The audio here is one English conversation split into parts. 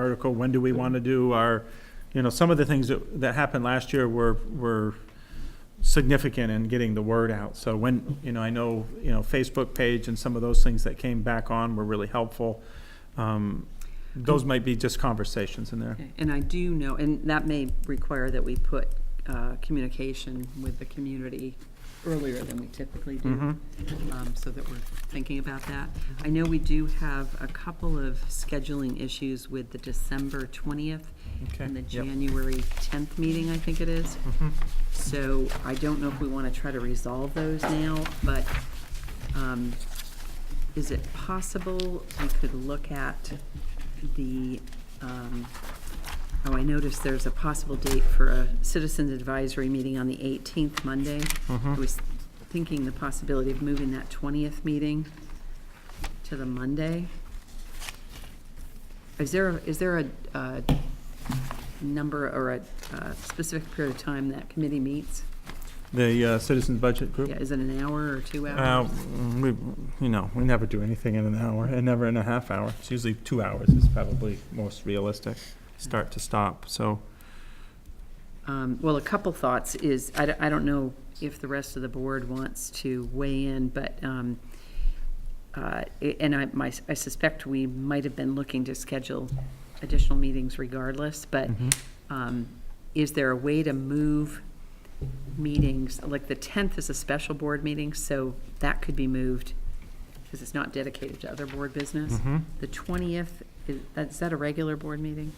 article, when do we want to do our, you know, some of the things that, that happened last year were, were significant in getting the word out. So when, you know, I know, you know, Facebook page and some of those things that came back on were really helpful. Um, Those might be just conversations in there. Okay, And I do know, and that may require that we put uh, communication with the community earlier than we typically do, Mm-hmm. um, so that we're thinking about that. I know we do have a couple of scheduling issues with the December 20th Okay. and the Yep. Mm-hmm. January 10th meeting, I think it is. So I don't know if we want to try to resolve those now, but um, is it possible we could look at the, um, oh, I noticed there's a possible date for a citizens advisory meeting on the 18th Monday. I was thinking the possibility of moving that 20th meeting to the Monday. Is there, a- is there a uh, number or a uh, specific period of time that committee meets? The uh, Citizens Budget Group? Yeah, is it an hour or two Uh, hours? we, you know, we never do anything in an hour, and never in a half hour. It's usually two hours is probably most realistic, start to stop, so. Um, Well, a couple thoughts is, I don't, I don't know if the rest of the board wants to weigh in, but, um, uh, i- and I, my, I suspect we might have been looking to schedule additional meetings regardless, but Mm-hmm. um, is there a way to move meetings, like the 10th is a special board meeting, so that could be moved, because it's not dedicated to other board business. Mm-hmm. The 20th, is, is that a regular board meeting?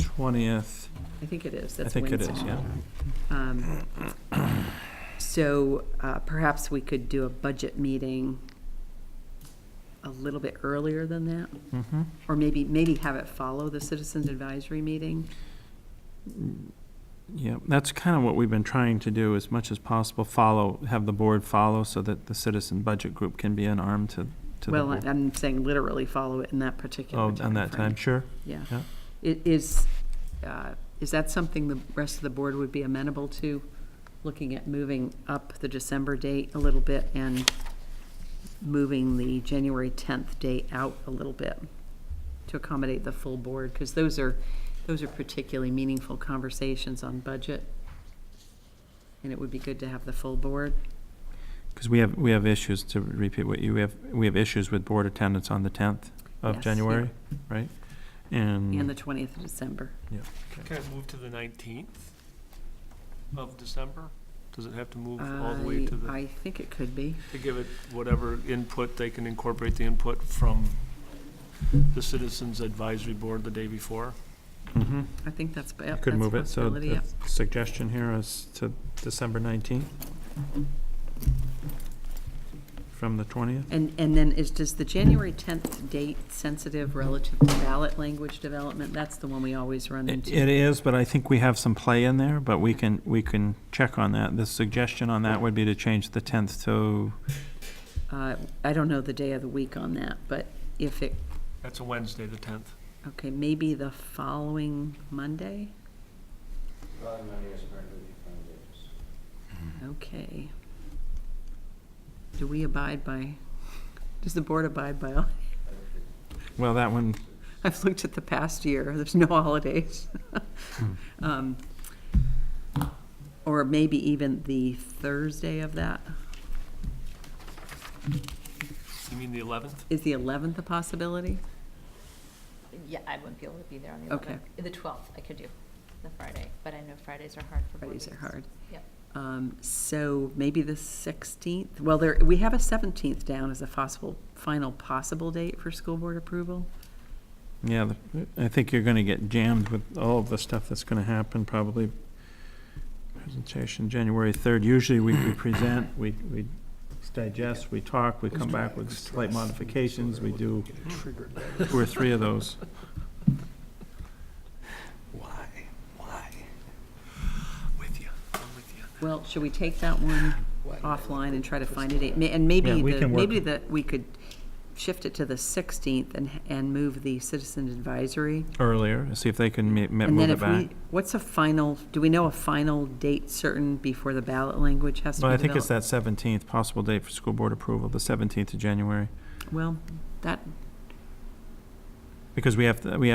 Twentieth, I think it is, I that's think Wednesday. it is, yeah. Um, So uh, perhaps we could do a budget meeting a little bit earlier than that? Mm-hmm. Or maybe, maybe have it follow the citizens advisory meeting? Yeah, that's kind of what we've been trying to do as much as possible, follow, have the board follow so that the Citizen Budget Group can be an arm to, to the Well, board. I'm saying literally follow it in that particular Oh, timeframe. on that time, sure, Yeah. yeah. I- Is, uh, is that something the rest of the board would be amenable to? Looking at moving up the December date a little bit and moving the January 10th date out a little bit to accommodate the full board? Because those are, those are particularly meaningful conversations on budget. And it would be good to have the full board. Because we have, we have issues, to repeat what you, we have, we have issues with board attendance on the tenth of Yes. January, right? And the And, 20th of December. Can I move to the nineteenth of December? Does it have to move all the I- way to the, I think it could be. to give it whatever input, they can incorporate the input from the Citizens Advisory Board the day before? Mhm. I think that's, yep, You that's could move it, so possibility, the yep. suggestion here is to December nineteenth? From the twentieth? And, and then is, does the January 10th date sensitive relative to ballot language development? That's the one we always run It into. it is, but I think we have some play in there, but we can, we can check on that. The suggestion on that would be to change the tenth to, Uh, I don't know the day of the week on that, but if it, That's a Wednesday, the tenth. okay, maybe the following Monday? Following Monday is hard to be foundations. Okay. Do we abide by, does the board abide by, all- well, that one, I've looked at the past year, there's no holidays. Hmm. Um, Or maybe even the Thursday of that? You mean the eleventh? Is the 11th a possibility? Yeah, I wouldn't be able to be there on the Okay. 11th. The 12th, I could do, the Friday, but I know Fridays are hard for board Fridays are meetings. hard. Yep. Um, So maybe the 16th, well, there, we have a 17th down as a possible, final possible date for school board approval. yeah, the- I think you're gonna get jammed with all of the stuff that's gonna happen, probably. Presentation, January third. Usually we, we present, we, we digest, we talk, we come back with slight modifications, we do two or three of those. Why? Why? With you, I'm with you. Well, should we take that one offline and try to find a date? Ma- And maybe, Yeah, we the can work- maybe that we could shift it to the 16th and, and move the citizen advisory. Earlier, see if they can ma- ma- And move then it if we, back. what's a final, do we know a final date certain before the ballot language has to Well, be I think it's developed? that seventeenth, possible date for school board approval, the seventeenth of January. Well, that, Because we have, to- we